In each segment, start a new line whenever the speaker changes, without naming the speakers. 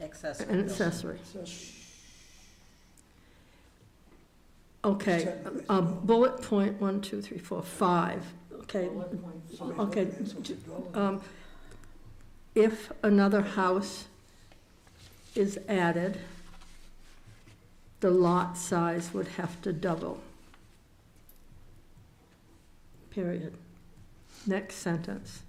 Accessory.
an accessory. Okay, uh, bullet point, one, two, three, four, five, okay, okay. um, If another house is added, the lot size would have to double. Period. Next sentence.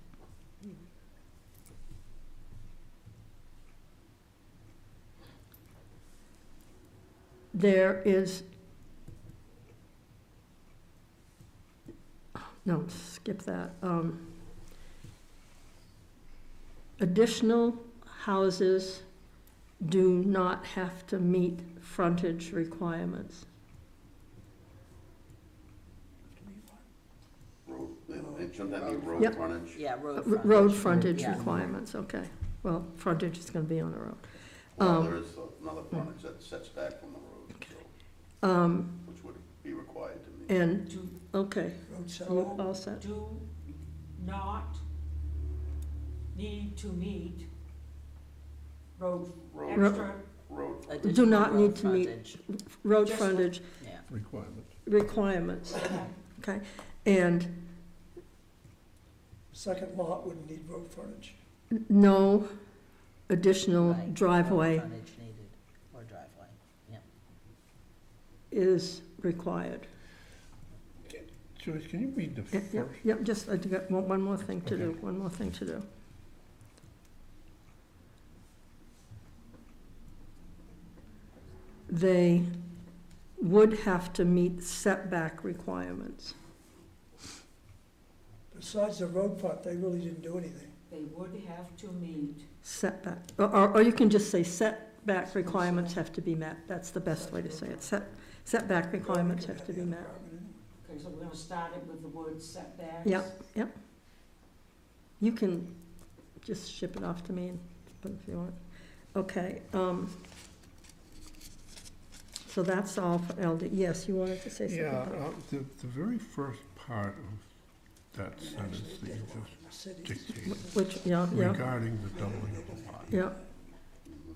There is. No, skip that. Um, Additional houses do not have to meet frontage requirements.
Road, and shouldn't that be road
Yep.
frontage?
Yeah, road
R-
frontage.
Uh, Road frontage
Yeah.
requirements, okay. Well, frontage is gonna be on the road.
Well,
Um,
there is another frontage that sets back from the road, so,
Um,
which would be required to me.
and,
Do,
okay, all all set.
do not need to meet road,
Road,
extra,
road,
Additional
not
road
need to meet-
frontage,
Road
Just-
frontage
Yeah,
requirement.
requirements, okay? And
Second lot wouldn't need road frontage.
n- no additional
right. Road
driveway
Frontage needed, or driveway.
is required.
Joyce, can you read the
Yeah, yeah,
first?
yeah, just, I got one, one more thing to do, one more thing to do. They would have to meet setback requirements.
Besides the road part, they really didn't do anything.
they would have to meet,
Setback, or- or, or you can just say setback requirements have to be met, that's the best way to say it. Set, setback requirements have to be met.
okay, so we're gonna start it with the word setbacks.
Yep, yep. You can just ship it off to me and put it if you want. Okay, um, so that's all for LD. Yes, you wanted to say something?
Yeah,
about-
uh, the, the very first part of that sentence that you just dictated
Which, yeah, yeah,
regarding the doubling of the lot.
yeah.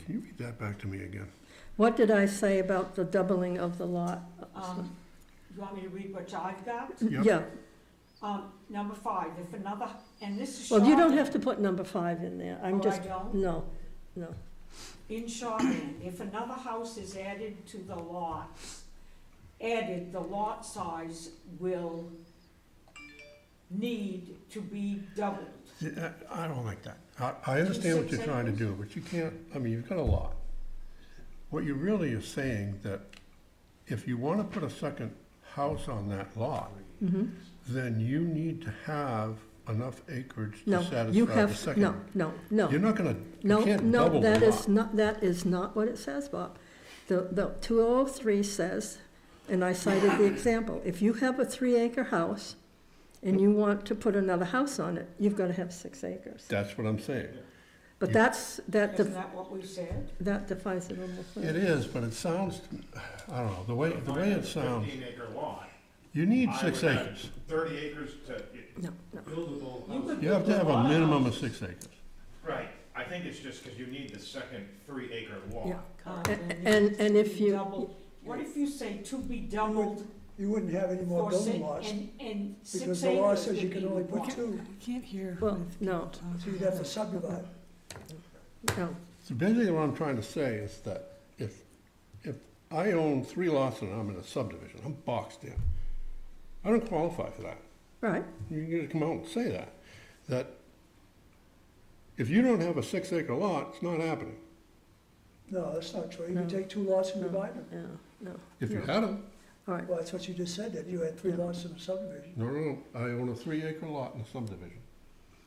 Can you read that back to me again?
What did I say about the doubling of the lot?
Um, you want me to read what I've got?
Yep.
Yeah,
Um, number five, if another, and this is
well, you don't
shorthand.
have to put number five in there. I'm
Oh, I
just,
don't?
no, no.
In shorthand, if another house is added to the lots, added, the lot size will need to be doubled.
Yeah, I I don't like that. I, I understand what you're trying to do, but you can't, I mean, you've got a lot. What you really is saying that if you wanna put a second house on that lot,
Mhm.
then you need to have enough acreage to
No, you
satisfy the
have,
second.
no, no, no.
You're not gonna,
No,
you can't
no,
double the
that is
lot.
not, that is not what it says, Bob. The, the two oh three says, and I cited the example, if you have a three acre house and you want to put another house on it, you've gotta have six acres.
That's what I'm saying.
But
You-
that's, that,
Isn't
def-
that what we said?
that defines it almost.
It is, but it sounds, I don't know, the way, the way it sounds,
Fifteen acre lot,
you need
I
six
would have
acres.
thirty acres to it-
No, no,
buildable
You
house.
could
You have to
build
have a
lot
minimum of
house.
six acres.
Right, I think it's just because you need the second three acre lot.
yeah.
Um,
A-
and
And,
to
and if
be
you,
doubled. What if you say to be doubled
You wouldn't have any more
for six,
building lots,
and, and
because
six
the law
acres
says you
would be
can only put
one?
two,
Can't hear.
well, no,
so you'd have to subdivide.
no,
So basically what I'm trying to say is that if, if I own three lots and I'm in a subdivision, I'm boxed in. I don't qualify for that.
right,
You can just come out and say that, that if you don't have a six acre lot, it's not happening.
No, that's not true. You could
No.
take two lots and divide them.
no, no.
If you
no.
had them,
All right,
Well, that's what you just said, that you had three
Yeah.
lots in a subdivision.
no, no, no, I own a three acre lot in a subdivision.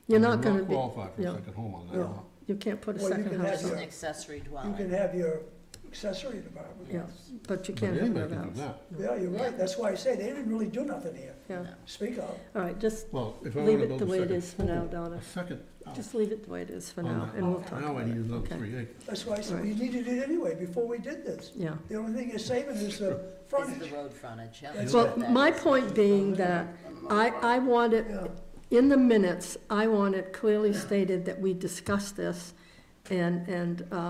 you're
I do
not gonna be,
qualify for
yeah.
a second home on that
No.
lot.
you can't put a
Well, you
second
can have
house
Just
on,
an
your-
it,
accessory
You can
dwelling.
have your accessory apartment.
yeah, but you
But
can't have
anybody
another
can do
house.
that.
Yeah, you're right. That's why I say they didn't really do nothing here.
Yeah,
Speak up.
all right, just
Well, if I
Leave
wanna
it
build
the
a
way it
second
is for now,
home,
Donna.
a second house
Just leave it the way it is for
on
now,
that
and we'll
lot,
talk
Now I
about
need
it.
another
Okay.
three acres.
That's why I said we needed it anyway, before we did this.
Yeah.
The only thing you're saving is the
Is the
frontage.
road frontage, yeah.
That's
Well,
That
my
is-
point being that I, I want it,
Yeah.
in the minutes, I want it clearly stated that we discussed this and, and, uh,